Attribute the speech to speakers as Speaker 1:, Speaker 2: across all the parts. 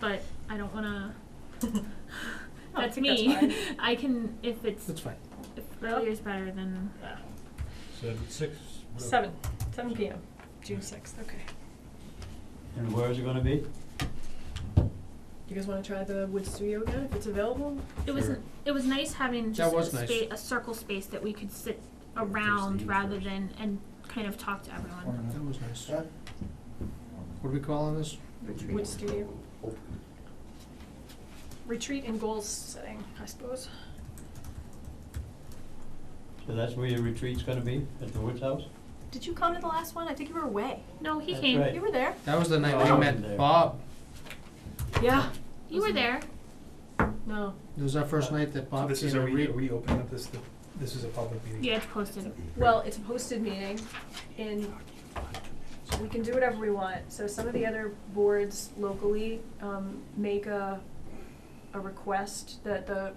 Speaker 1: but I don't wanna,
Speaker 2: Oh,
Speaker 1: that's
Speaker 2: that's
Speaker 1: me.
Speaker 2: fine.
Speaker 1: I can, if it's,
Speaker 3: That's fine.
Speaker 1: if earlier is better, then,
Speaker 2: Uh,
Speaker 4: Seven, six? whatever.
Speaker 2: Seven, seven PM, June sixth, okay.
Speaker 5: And where is it gonna be?
Speaker 2: You guys wanna try the wood studio again, if it's available?
Speaker 1: it was,
Speaker 4: Sure.
Speaker 1: it was nice having
Speaker 3: That
Speaker 1: just a
Speaker 3: was nice.
Speaker 1: spa- a circle space that we could sit
Speaker 4: Yeah, first
Speaker 1: around
Speaker 4: thing
Speaker 1: rather
Speaker 4: first.
Speaker 1: than, and kind of talk to everyone.
Speaker 3: That was nice. What are we calling this?
Speaker 2: Wood studio. Retreat and goals setting, I suppose.
Speaker 5: So that's where your retreat's gonna be, at the Woods House?
Speaker 2: Did you come to the last one? I think you were away.
Speaker 1: No, he
Speaker 5: That's
Speaker 1: came,
Speaker 5: right.
Speaker 2: You were there?
Speaker 3: That was the night
Speaker 5: Oh,
Speaker 3: we
Speaker 5: there.
Speaker 3: met Bob.
Speaker 2: Yeah.
Speaker 1: you were there,
Speaker 2: No.
Speaker 3: It was our first night that
Speaker 6: So
Speaker 3: Bob
Speaker 6: this is
Speaker 3: came
Speaker 6: a
Speaker 3: and
Speaker 6: re-
Speaker 3: re-
Speaker 6: reopening of this, this is a public meeting.
Speaker 1: yeah, it's posted,
Speaker 2: Well, it's a posted meeting and we can do whatever we want. So some of the other boards locally, um, make a, a request that the,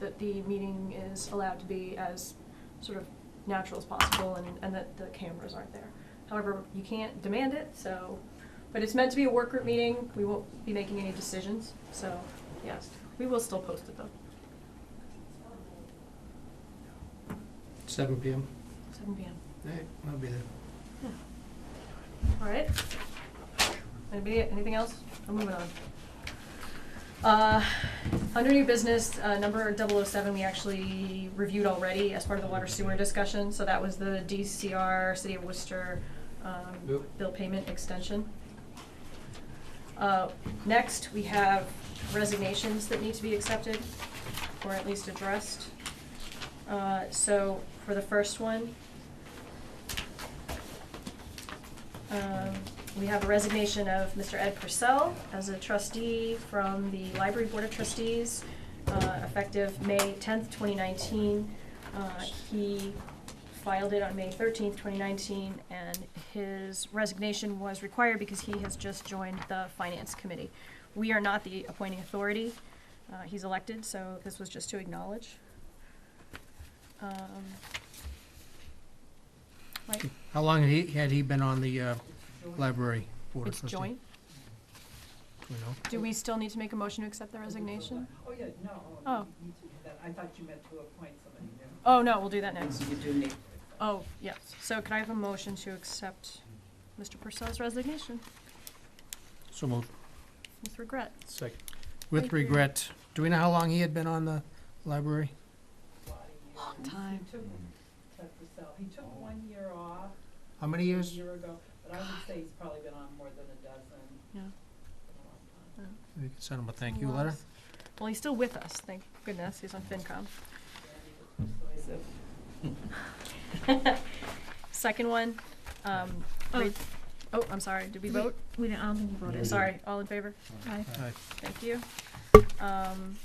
Speaker 2: that the meeting is allowed to be as sort of natural as possible and, and that the cameras aren't there. However, you can't demand it, so, but it's meant to be a work group meeting. We won't be making any decisions, so, yes, we will still post it though,
Speaker 3: seven PM.
Speaker 2: seven PM.
Speaker 3: Hey, I'll be there.
Speaker 2: All right. Anybody, anything else? I'm moving on. Uh, Under new business, uh, number 007, we actually reviewed already as part of the water sewer discussion. So that was the DCR, City of Worcester um,
Speaker 3: Yep.
Speaker 2: bill payment extension. Uh, Next, we have resignations that need to be accepted or at least addressed. Uh, So for the first one, Um, We have a resignation of Mr. Ed Purcell as a trustee from the Library Board of Trustees, uh, effective May tenth, twenty nineteen. Uh, He filed it on May thirteenth, twenty nineteen, and his resignation was required because he has just joined the Finance Committee. We are not the appointing authority. Uh, He's elected, so this was just to acknowledge. Um, Mike?
Speaker 3: How long had he, had he been on the, uh, library board of
Speaker 2: It's
Speaker 3: trustees?
Speaker 2: joint.
Speaker 3: Do we know?
Speaker 2: Do we still need to make a motion to accept the resignation?
Speaker 7: Oh, yeah, no,
Speaker 2: Oh.
Speaker 7: oh, you need to do that. I thought you meant to appoint somebody new.
Speaker 2: Oh, no, we'll do that next.
Speaker 7: You do need.
Speaker 2: Oh, yes. So could I have a motion to accept Mr. Purcell's resignation
Speaker 3: So moved.
Speaker 2: with regret?
Speaker 6: Second.
Speaker 3: With
Speaker 2: Thank you.
Speaker 3: regret. Do we know how long he had been on the library?
Speaker 2: Long time.
Speaker 7: He took, Ted Purcell, he took one year off
Speaker 3: How many
Speaker 7: a
Speaker 3: years?
Speaker 7: year ago, but I would say he's probably been on more than a dozen.
Speaker 2: Yeah.
Speaker 7: A long time.
Speaker 3: We can send him a thank you letter.
Speaker 2: Well, he's still with us, thank goodness. He's on FinCom.
Speaker 7: Persuasive.
Speaker 2: Second one, um,
Speaker 1: Oh.
Speaker 2: re- oh, I'm sorry. Did we vote?
Speaker 1: we didn't, I don't think you voted.
Speaker 2: Sorry, all in favor?
Speaker 1: Aye.
Speaker 3: Aye.
Speaker 2: Thank you. Um,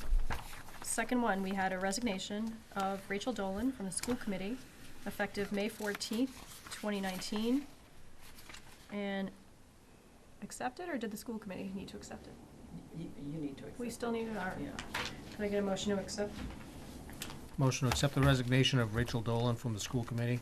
Speaker 2: second one, we had a resignation of Rachel Dolan from the school committee, effective May fourteenth, twenty nineteen. And accept it, or did the school committee need to accept it?
Speaker 7: You, you need to accept.
Speaker 2: We still
Speaker 7: it.
Speaker 2: need an R.
Speaker 7: Yeah.
Speaker 2: Can I get a motion to accept?
Speaker 3: Motion to accept the resignation of Rachel Dolan from the school committee.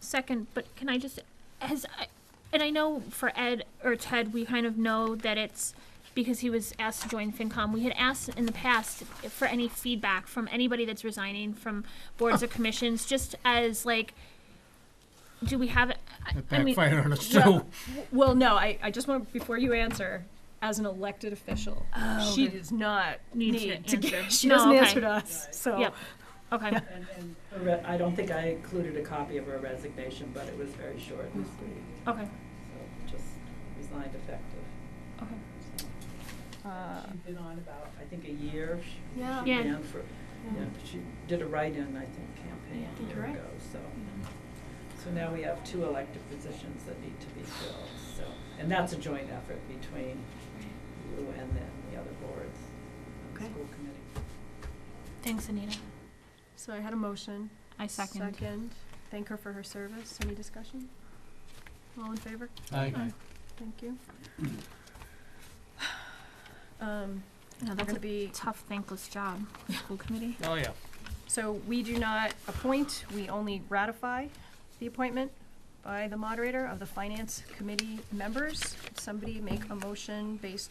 Speaker 1: Second, but can I just, has, I- and I know for Ed or Ted, we kind of know that it's because he was asked to join FinCom. We had asked in the past if- for any feedback from anybody that's resigning from boards or
Speaker 7: Oh.
Speaker 1: commissions, just as like, do we have, I-
Speaker 3: That
Speaker 1: I mean,
Speaker 3: backfired on us
Speaker 2: Well,
Speaker 3: too.
Speaker 2: Well, no, I, I just want, before you answer, as an elected official,
Speaker 1: Oh,
Speaker 2: she
Speaker 1: okay.
Speaker 2: does not
Speaker 1: Need
Speaker 2: need
Speaker 1: to answer.
Speaker 2: to get, she
Speaker 1: No,
Speaker 2: doesn't
Speaker 1: okay.
Speaker 2: answer to us,
Speaker 7: Right.
Speaker 2: so.
Speaker 1: Yep. okay,
Speaker 7: And, and her re- I don't think I included a copy of her resignation, but it was very short and sweet,
Speaker 1: okay,
Speaker 7: so just resigned effective.
Speaker 1: okay.
Speaker 7: So
Speaker 2: Uh,
Speaker 7: She'd been on about, I think, a year. She-
Speaker 2: Yeah.
Speaker 7: She
Speaker 1: Yeah.
Speaker 7: ran for, yeah, she did a write-in, I think, campaign
Speaker 2: Yeah, I
Speaker 7: a
Speaker 2: think
Speaker 7: year
Speaker 2: you're right.
Speaker 7: ago, so. So now we have two elected positions that need to be filled, so, and that's a joint effort between you and then the other boards, and the
Speaker 2: Okay.
Speaker 7: school committee.
Speaker 1: Thanks, Anita.
Speaker 2: So I had a motion.
Speaker 1: I second.
Speaker 2: Second. Thank her for her service. Any discussion? All in favor?
Speaker 3: Aye.
Speaker 2: Thank you. Um,
Speaker 1: No,
Speaker 2: we're
Speaker 1: that's
Speaker 2: gonna
Speaker 1: a
Speaker 2: be,
Speaker 1: tough, thankless job, school committee.
Speaker 3: Oh, yeah.
Speaker 2: so we do not appoint, we only ratify the appointment by the moderator of the finance committee members. Somebody make a motion based